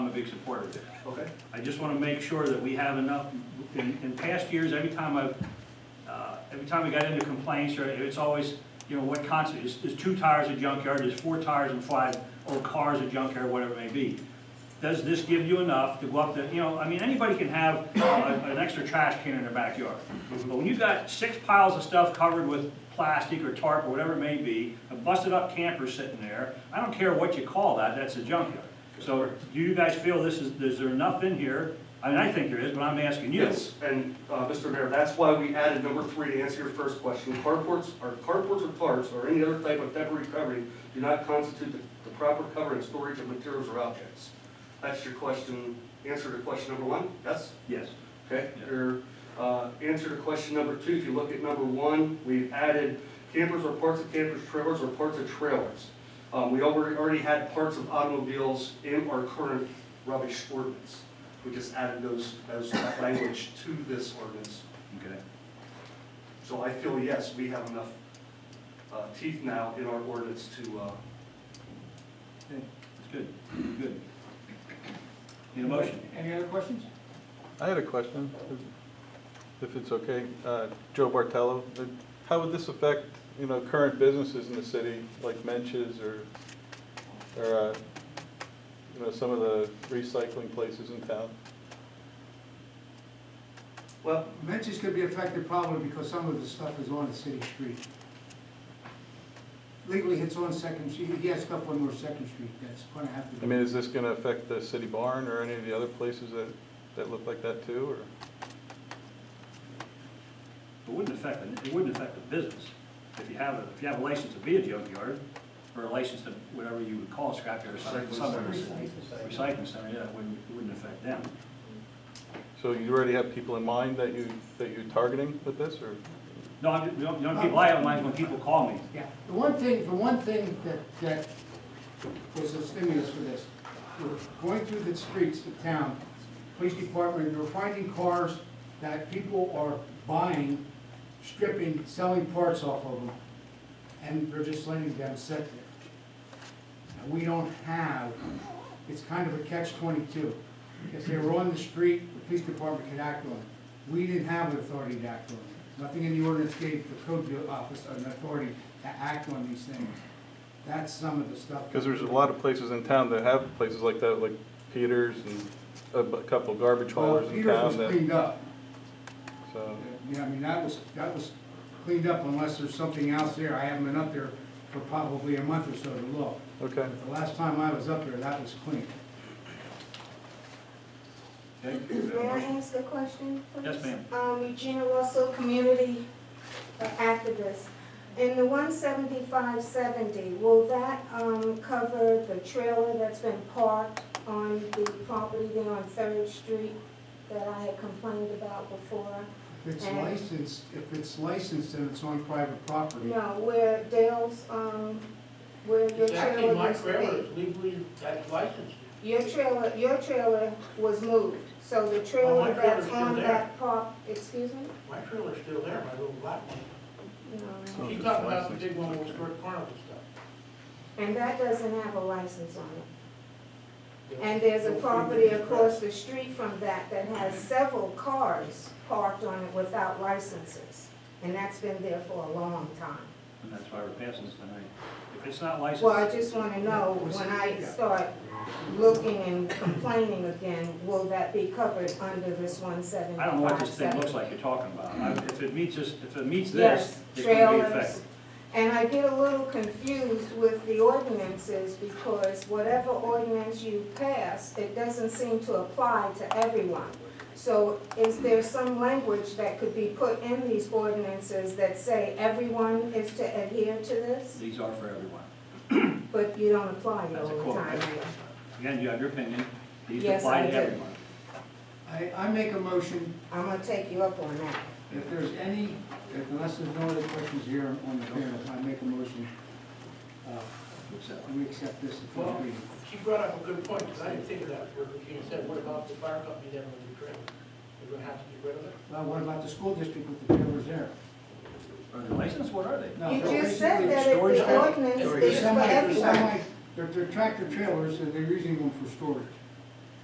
big supporter of it. Okay. I just want to make sure that we have enough, in, in past years, every time I've, uh, every time we got into complaints, or it's always, you know, what constitutes, is two tires a junkyard, is four tires and five old cars a junkyard, whatever it may be. Does this give you enough to go up to, you know, I mean, anybody can have uh, a- an extra trash can in their backyard. But when you've got six piles of stuff covered with plastic or tarp or whatever it may be, a busted up camper sitting there, I don't care what you call that, that's a junkyard. So do you guys feel this is, is there enough in here? I mean, I think there is, but I'm asking you. Yes, and, uh, Mr. Mayor, that's why we added number three to answer your first question. Carports, or carports or tarps, or any other type of temporary covering do not constitute the, the proper cover and storage of materials or objects. That's your question, answer to question number one, yes? Yes. Okay, Yeah. your, uh, answer to question number two, if you look at number one, we've added campers or parts of campers, trailers or parts of trailers. Um, we already, already had parts of automobiles in our current rubbish ordinance. We just added those, those, that language to this ordinance. Okay. So I feel, yes, we have enough, uh, teeth now in our ordinance to, uh, Okay, That's good, good. Need a motion? Any other questions? I had a question, if- if it's okay. Uh, Joe Bartello, uh, how would this affect, you know, current businesses in the city, like Mensch's or, or, uh, you know, some of the recycling places in town? well, Mentions could be affected probably because some of the stuff is on the city street. Legally, it's on Second, Street. he has stuff on North Second Street that's gonna have to I be. mean, is this going to affect the city barn or any of the other places that, that look like that too, or? It wouldn't affect, it wouldn't affect the business. If you have, a if you have a license to be a junkyard, or a license to whatever you would call a scrapyard or something, Recycling some center. recycling center, yeah, it wouldn't, it wouldn't affect them. So you already have people in mind that you, that you're targeting with this, or? No, I'm, you know, you know, people, I have mine when people call me. Yeah, the one thing, the one thing that, that was a stimulus for this, we're going through the streets of town, police department, we're finding cars that people are buying, stripping, selling parts off of them, and they're just letting them sit there. And we don't have, it's kind of a catch twenty-two. If they were on the street, the police department could act on it. We didn't have the authority to act on it. Nothing in the ordinance gave the code bureau office an authority to act on these things. That's some of the stuff. Because there's a lot of places in town that have places like that, like Peters and a bu- couple garbage Well, haulers in Peters was town that, cleaned up. so. Yeah, I mean, that was, that was cleaned up unless there's something else there. I haven't been up there for probably a month or so to look. Okay, But the last time I was up there, that was clean. Okay? May I ask a question? please? Yes, ma'am. Um, Regina Russell, community activist. In the one seventy-five seventy, will that, um, cover the trailer that's been parked on the property there on Third Street that I had complained about before? If it's licensed, if it's licensed and it's on private property, No, where Dale's, um, where your Exactly, trailer my used to trailer be. is legally, that's licensed. Your trailer, your trailer was moved, so Oh, the trailer trailer's that's still on there. that park, excuse me? My trailer's still there, my little black one. No. Oh, She's it's talking about the licensed, big one with okay. the carnival stuff. And that doesn't have a license on it. you know. And there's a property across the street from that that has several cars parked on it without licenses. And that's been there for a long time. And that's why we're passing this tonight. If it's not licensed. Well, I just want to know, when I start looking and complaining again, will that be covered under this one I don't know what this thing looks 175? like you're talking about. I- If it meets this, if it meets this, Yes, it can be trailers. affected. And I get a little confused with the ordinances because whatever ordinance you pass, it doesn't seem to apply to everyone. So is there some language that could be put in these ordinances that say everyone is to adhere to this? These are for everyone. But you don't apply it all That's a the quote. time. Again, you have your opinion. These Yes, apply I to do. everyone. I, I make a motion, I'm gonna take you up on that. if there's any, if unless there's no other questions here on the panel, I make a motion. uh, So, And we accept this as first Well, reading. she brought up a good point, because I didn't think of that, where Regina said, what about the fire company then with the trailer? We're gonna have to get rid of it? Well, what about the school district with the trailers there? Are they licensed? What are they? No, You they're just said basically that if storage the trailers. ordinance They're is for semi- they're everyone. semi- They're, they're tractor trailers, and they're using them for storage.